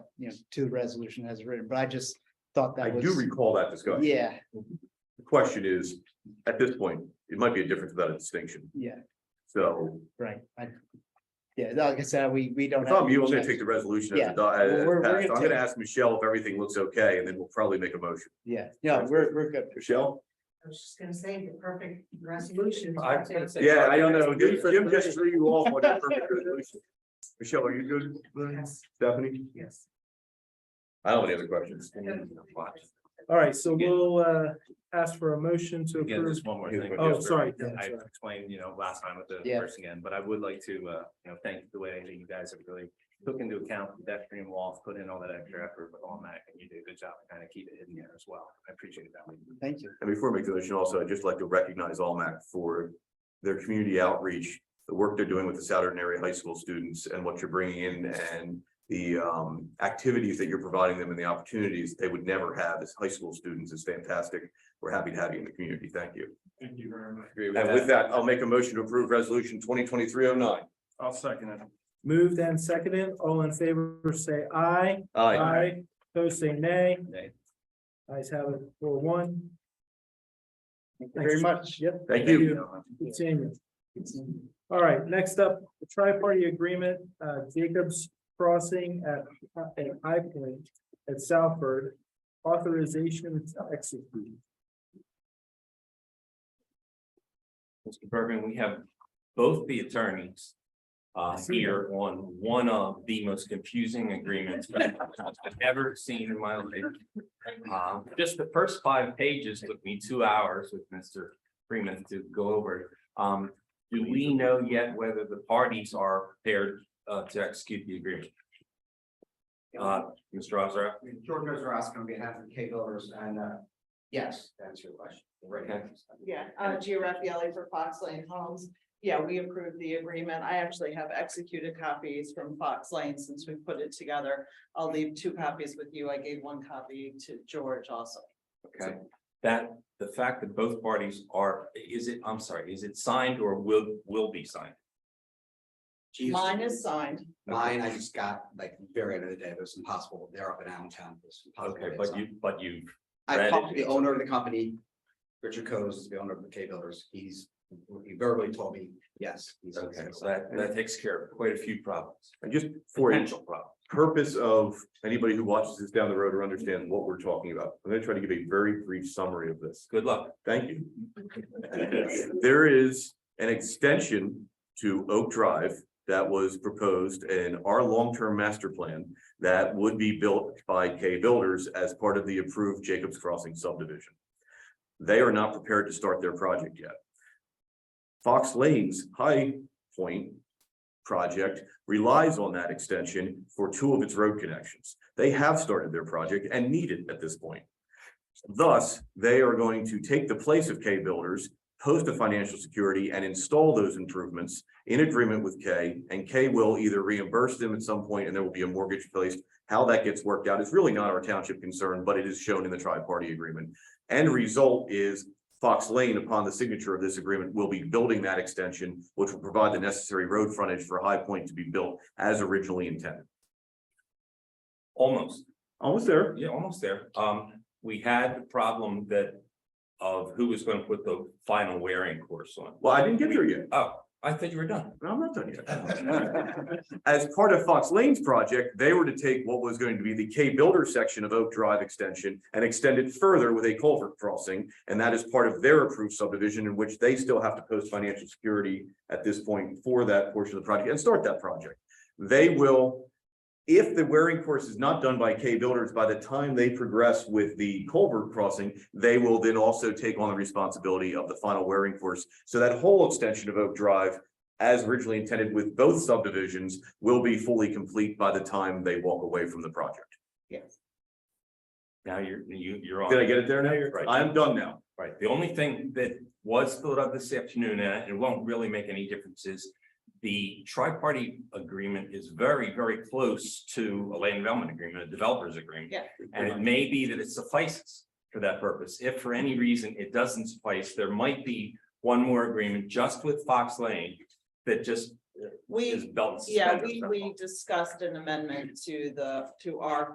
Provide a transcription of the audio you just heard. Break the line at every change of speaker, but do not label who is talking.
you know, to the resolution as written, but I just thought
I
that
do
was,
recall that discussion.
yeah,
The question is, at this point, it might be a difference without a distinction,
yeah,
so.
right. I, yeah, like I said, we, we don't.
If
have
I'm you, I'm gonna
check-
take the resolution as
Yeah.
a, do- as
We're- we're
passed.
gonna
I'm gonna
take-
ask Michelle if everything looks okay, and then we'll probably make a motion.
Yeah, yeah, we're, we're good.
Michelle?
I was just gonna say the perfect resolution.
I was gonna say-
Yeah, I don't know, Jim
Good for
Jim just
today.
threw you off on your perfect resolution. Michelle, are you good? with it?
Yes,
Stephanie?
yes.
I don't have any other questions.
All right, so we'll uh ask for a motion to
Again,
approve.
just one more
Yeah,
thing.
but-
Oh, sorry. yeah,
I
sorry.
explained, you know, last time with the
Yeah.
first again, but I would like to, uh, you know, thank the way that you guys have really took into account the pedestrian walls, put in all that extra effort with all that, and you did a good job to kind of keep it hidden there as well. I appreciate that.
Thank you.
And before I make the motion also, I'd just like to recognize Almac for their community outreach, the work they're doing with the Southern Area High School students and what you're bringing in and the um activities that you're providing them and the opportunities they would never have as high school students is fantastic. We're happy to have you in the community. Thank you.
Thank you very much.
And with that, I'll make a motion to approve resolution twenty twenty-three oh nine.
I'll second it.
Moved and seconded, all in favor, say aye. Opposed, say nay.
Nay.
Ayes have it for one.
Thank you Very much.
Yep.
Thank you.
Good seeing you. All right, next up, the tri-party agreement, uh, Jacobs Crossing at, at High Point at Southford. Authorization to execute.
Mr. Bergman, we have both the attorneys. Uh, here on one of the most confusing agreements I've ever seen in my life. Um, just the first five pages took me two hours with Mr. Freeman to go over. Um, do we know yet whether the parties are there uh to execute the agreement? Uh, Mr. Ozra,
George Ozrowski on behalf of Kay Builders and, uh, yes, that's your question.
Okay.
Yeah, uh, Gia Raffaelli for Fox Lane Homes. Yeah, we approved the agreement. I actually have executed copies from Fox Lane since we put it together. I'll leave two copies with you. I gave one copy to George also.
Okay, that, the fact that both parties are, is it, I'm sorry, is it signed or will, will be signed?
Jesus.
Mine is signed.
Mine, I just got like very end of the day, it was impossible, they're up in Allentown. it was impossible
Okay,
to
but
sign.
you, but you, read
I
it.
talked to the owner of the company, Richard Coase is the owner of the K Builders, he's, he verbally told me, yes. he's-
okay, so that, that takes care of quite a few problems,
And just for a
potential problems.
purpose of anybody who watches this down the road or understands what we're talking about, I'm gonna try to give a very brief summary of this.
Good luck.
Thank you. There is an extension to Oak Drive that was proposed in our long-term master plan that would be built by K Builders as part of the approved Jacobs Crossing subdivision. They are not prepared to start their project yet. Fox Lane's High Point project relies on that extension for two of its road connections. They have started their project and need it at this point. Thus, they are going to take the place of K Builders, post a financial security and install those improvements in agreement with K. And K will either reimburse them at some point and there will be a mortgage placed. How that gets worked out is really not our township concern, but it is shown in the tri-party agreement. End result is Fox Lane, upon the signature of this agreement, will be building that extension, which will provide the necessary road frontage for High Point to be built as originally intended.
Almost,
Almost there.
yeah, almost there. Um, we had the problem that of who was gonna put the final wearing course on.
Well, I didn't get there yet.
Oh, I thought you were done.
No, I'm not done yet. As part of Fox Lane's project, they were to take what was going to be the K Builder section of Oak Drive extension and extend it further with a culvert crossing. And that is part of their approved subdivision in which they still have to post financial security at this point for that portion of the project and start that project. They will, if the wearing course is not done by K Builders, by the time they progress with the culvert crossing, they will then also take on the responsibility of the final wearing course. So that whole extension of Oak Drive as originally intended with both subdivisions will be fully complete by the time they walk away from the project.
Now you're, you, you're on.
Did I get it there now?
Right.
I'm done now.
Right, the only thing that was filled out this afternoon, and it won't really make any difference, is the tri-party agreement is very, very close to a land development agreement, a developers agreement.
Yeah.
And it may be that it suffices for that purpose. If for any reason it doesn't suffice, there might be one more agreement just with Fox Lane that just is
We,
belt. and
yeah,
suspenders.
we, we discussed an amendment to the, to our